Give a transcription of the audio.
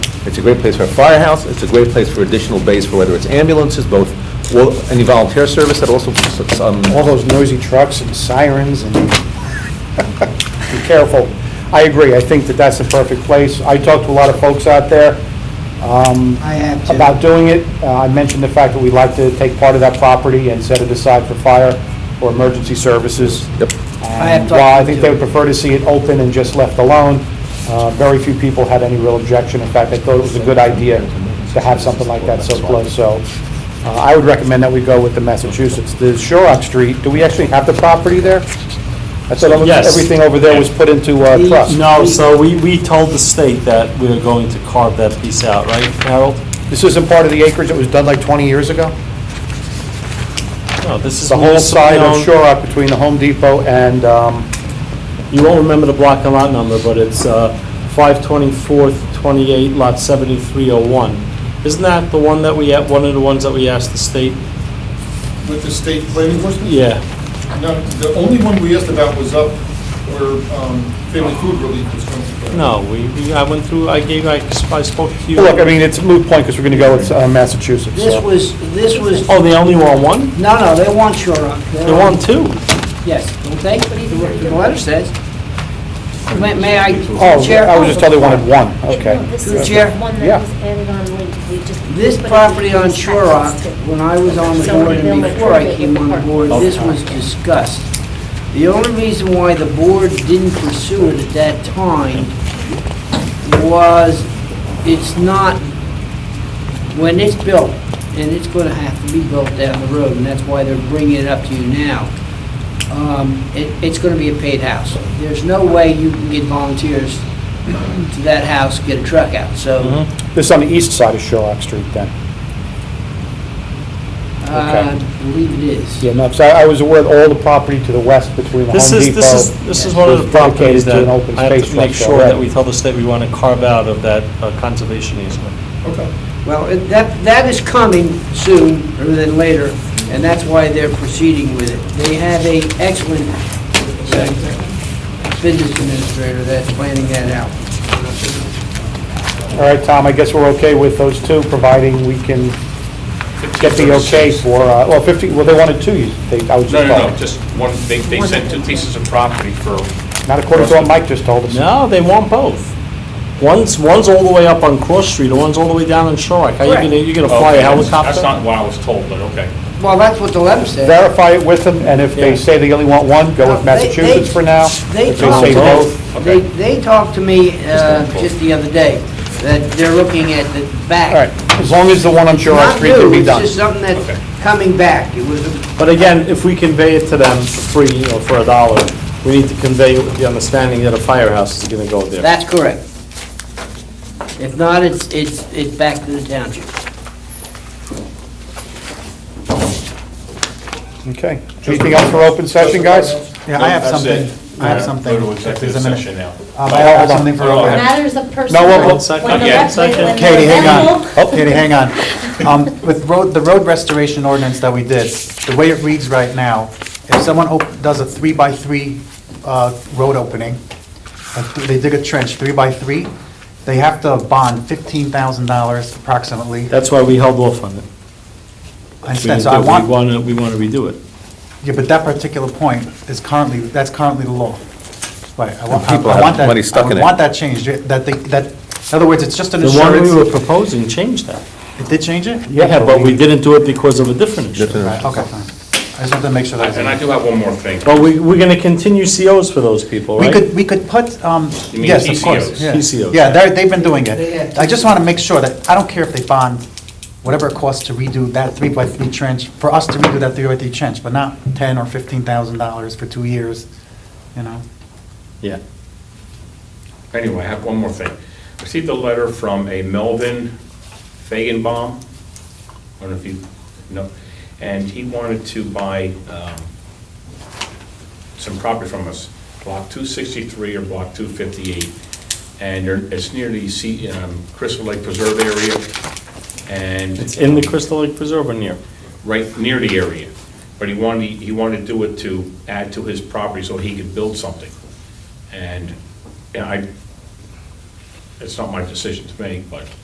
It's a great place for a firehouse, it's a great place for additional base for whether it's ambulances, both, well, any volunteer service that also, um, all those noisy trucks and sirens and, be careful. I agree, I think that that's the perfect place. I talked to a lot of folks out there um, I have to. about doing it. Uh, I mentioned the fact that we'd like to take part of that property and set it aside for fire or emergency services. Yep. And I have talked While I to think Joe. they would prefer to see it open and just left alone, uh, very few people had any real objection. In fact, they thought it was a good idea to have something like that so close, so uh, I would recommend that we go with the Massachusetts. The Shorrock Street, do we actually have the property there? I thought almost Yes. everything over there was put into uh, trust. No, so we, we told the state that we are going to carve that piece out, right, Harold? This isn't part of the acreage that was done like 20 years ago? No, this is. The whole side of municipally owned. Shorrock between the Home Depot and, um, You won't remember the block and lot number, but it's uh, 524, 28, lot 7301. Isn't that the one that we, had- one of the ones that we asked the state? With the state planning enforcement? Yeah. No, the only one we asked about was up where um, family food relief was coming from. No, we, we- I went through, I gave, I I spoke to you. look, I mean, it's a moot point because we're going to go with uh, Massachusetts. so. This was, this was, Oh, they only want one? no, no, they want Shore Rock. They want two. Yes, don't they? The the letter says. May may I, Oh, Chair? I was just told they wanted one, okay. No, This Through is Chair. the one Yeah. that was added on, we we just. This put it property in on these Shore Rock, sections too. when I was on the So board they'll and make before I sure that came your on part- board, this was discussed. The only reason why the board didn't pursue it at that time was it's not, when it's built, and it's going to have to be built down the road, and that's why they're bringing it up to you now, um, it- it's going to be a paid house. There's no way you can get volunteers to that house, get a truck out, so This is on the east side of Shorrock Street then? uh, Okay. I believe it is. Yeah, no, 'cause I I was aware of all the property to the west between the Home This is, this is, Depot. this is one of the was dedicated properties to that an open I have space to make trust sure that already. we tell the state we want to carve out of that uh, conservation easement. Okay. Well, it- that, that is coming soon, rather than later, and that's why they're proceeding with it. They have a excellent uh, business administrator that's planning that out. All right, Tom, I guess we're okay with those two, providing we can get the okay for, uh, well, 50, well, they wanted two, you think, I was No, just no, no, told. just one, they, they sent two pieces of property for, Not according to what Mike just told us. No, they want both. One's, one's all the way up on Cross Street, and one's all the way down on Shorrock. How you gonna, you gonna fly a Okay, that's helicopter? that's not what I was told, but okay. Well, that's what the letter said. Verify it with them, and if they Yeah. say they only want one, go with No, they- Massachusetts they- for now. They If they say talked, both, they, they talked to me uh, just the other day, that they're looking at the back. all right, as long as the one on Shorrock Not Street can new, be it's done. just something Okay. that's coming back. It was, a- But again, if we convey it to them for free or for a dollar, we need to convey it with the understanding that a firehouse is gonna go there. that's correct. If not, it's, it's, it's back to the township. Okay, anything else for open session, guys? Yeah, I have something, I have something. Go to if executive there's a minute. session now. Um, I have Hold on. something for Hold on. open. Matters of personal. No, well, One second, When the yeah, rec- second. when the Katie, hang on. Oh, rec- Katie, hang on. Um, With road, the road restoration ordinance that we did, the way it reads right now, if someone op- does a three-by-three uh, road opening, and th- they dig a trench three-by-three, they have to bond $15,000 approximately. That's why we held off on it. I understand, so I We want, wanna, we wanna redo it. yeah, but that particular point is currently, that's currently the law. Right, I want, I people have want that. money stuck in it. I want that changed, that, they- that, in other words, it's just an The one insurance. we were proposing changed that. It did change it? Yeah, but we didn't do it because of a different issue. Different- Right, okay, fine. I just wanted to make sure that was. And I do have one more thing. But we, we're gonna continue COs for those people, We right? could, we could put, um, You mean yes, of course. TCOs. yeah. TCOs. Yeah, they're, they've been doing They it. have I just want to make sure that, I don't care if they bond whatever it costs to redo that three-by-three trench, for us to redo that three-by-three trench, but not ten or fifteen thousand dollars for two years, you know? Yeah. Anyway, I have one more thing. I Received a letter from a Melvin Fagenbaum, I don't know if you know, and he wanted to buy um, some property from us, Block 263 or Block 258, and they're- it's near the sea- um, Crystal Lake Preserve area, and... It's in the Crystal Lake Preserve or near. right near the area, but he wanted, he wanted to do it to add to his property so he could build something. And, you know, I, it's not my decision to make, but